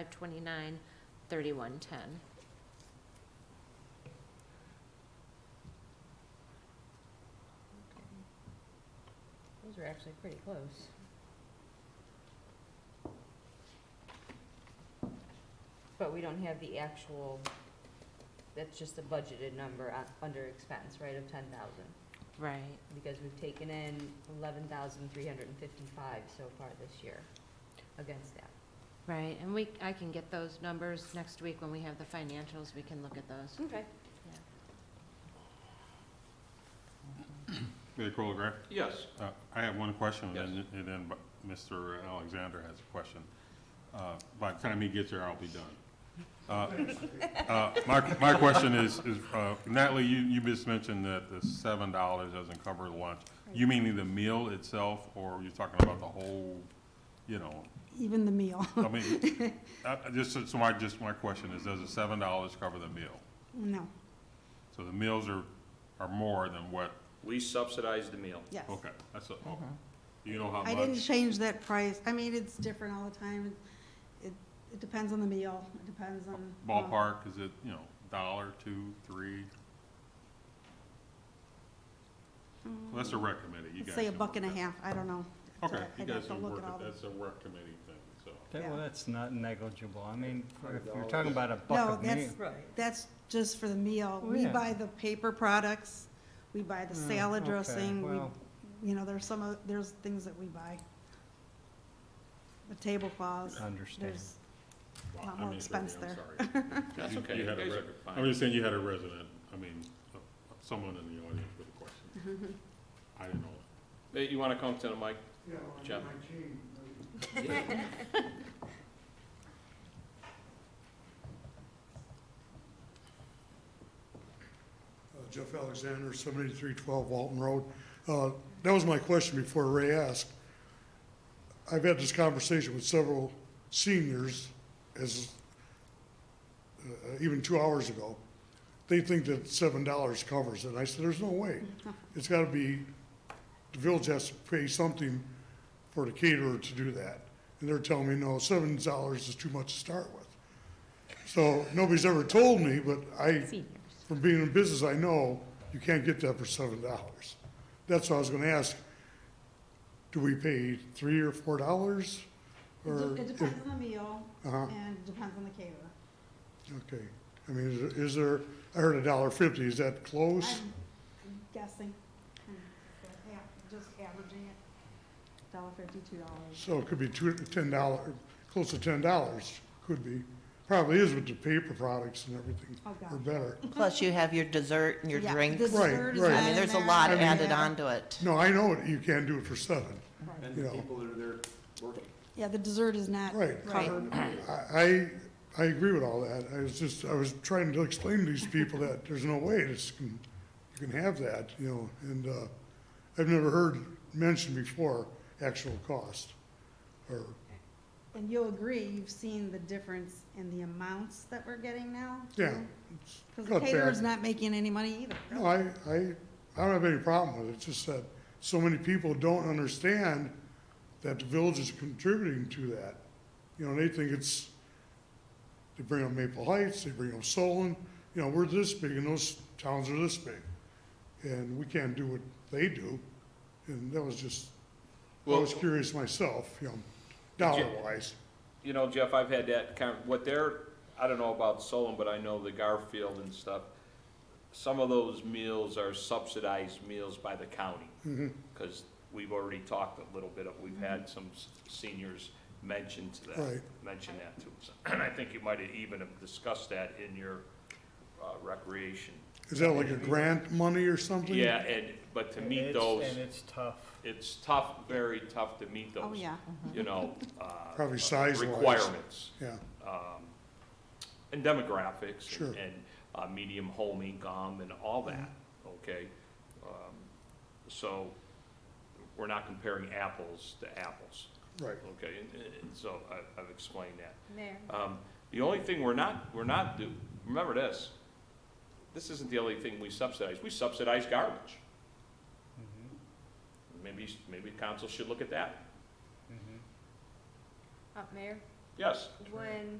Five twenty-nine, thirty-one ten. Those are actually pretty close. But we don't have the actual, that's just a budgeted number on- under expense, right, of ten thousand? Right. Because we've taken in eleven thousand three hundred and fifty-five so far this year against that. Right, and we, I can get those numbers next week when we have the financials, we can look at those. Okay. Mayor Colgrove, Yes. uh, I have one question, Yes. and then, and then bu- Mr. Alexander has a question. Uh, By the time he gets here, I'll be done. Uh, uh, My, my question is, is uh, Natalie, you, you just mentioned that the seven dollars doesn't cover the lunch. You meaning the meal itself, or you're talking about the whole, you know, Even the meal. I mean, I- I just, so- so my, just my question is, does the seven dollars cover the meal? No, So the meals are, are more than what, We subsidize the meal. yes. okay, that's, a- okay. Do you know how much? Mm-hmm. I didn't change that price. I mean, it's different all the time. It, it depends on the meal. It depends on. well, ballpark, is it, you know, dollar, two, three? Well, That's a rec committee, you Mm. let's guys. Say a can buck and a work half. I don't know. that. Okay, you I'd have guys to can look work at all it, the. that's a rec committee thing, so. That, Yeah. well, that's not negligible. I mean, if you're talking about a No, buck of meat, that's- Right. That's just for the meal. Oh, We yeah. buy the paper products. We buy the Mm, salad okay, dressing. We, well. you know, there's some, of- there's things that we buy. The tablecloths. understand. There's, Wow, A lot I more mean, expense Brittany, I'm That's sorry. okay. You- you You had a guys rec- are fine. I'm just saying you had a resident, I mean, uh, someone in the audience with a question. Mm-hmm. I didn't know. Hey, You want to come to the mic? Yeah, well, I Jeff. got my chain. Uh, Jeff Alexander, seventy-three twelve Walton Road. Uh, That was my question before Ray asked. I've had this conversation with several seniors as, uh, even two hours ago. They think that seven dollars covers it. I said, there's no way. It's gotta be, the village has to pay something for the caterer to do that. And they're telling me, no, seven dollars is too much to start with. So nobody's ever told me, but I Seniors. from being in business, I know you can't get that for seven dollars. That's what I was gonna ask. Do we pay three or four dollars? it Or, de- it depends on the meal uh-huh, and it depends on the caterer. okay. I mean, is- is there, I heard a dollar fifty, is that close? I'm I'm guessing, Hmm, but yeah, just averaging it, dollar fifty-two dollars. So it could be two, ten dollar, close to ten dollars, could be. Probably is with the paper products and everything, Oh, or God. better. Plus you have your dessert and your Yeah, drink. dessert Right, is right. I not in mean, there's a there. lot I mean, added yeah. onto it. No, I know you can't do it for seven, Right. you know. that are there working. Yeah, the dessert is not. Right. I, I I agree with all that. I was just, I was trying to explain to these people that there's no way this can, you can have that, you know, and, uh, I've never heard mentioned before actual cost, or, And you'll agree, you've seen the difference in the amounts that we're getting now. yeah. Because the Cut back. caterer's not making any money either. No, I, I, I don't have any problem with it, it's just that so many people don't understand that the village is contributing to that. You know, they think it's, they bring up Maple Heights, they bring up Solon, you know, we're this big and those towns are this big. And we can't do what they do, and that was just, I Well- was curious myself, you know, dollar wise. You know, Jeff, I've had that kind, what they're, I don't know about Solon, but I know the Garfield and stuff. Some of those meals are subsidized meals by the county. Because we've already talked a little bit, of- we've had some s- seniors mention to that, Right. mention that to us. And I think you might have even have discussed that in your uh, recreation. Is that like a grant money or something? Yeah, and, but to meet It's- those. And it's tough. it's tough, very tough to meet those. Oh, yeah. You know. uh, Probably size-wise. Requirements Yeah, and demographics Sure. and- and uh, medium home income and all that, okay? Um, So we're not comparing apples to apples, right. okay? And- And so I- I've explained that. Mayor? Um, The only thing we're not, we're not, do- remember this, this isn't the only thing we subsidize, we subsidize garbage. Mm-hmm, Maybe, maybe mm-hmm. council should look at that, Mhm. Uh, Mayor, yes. when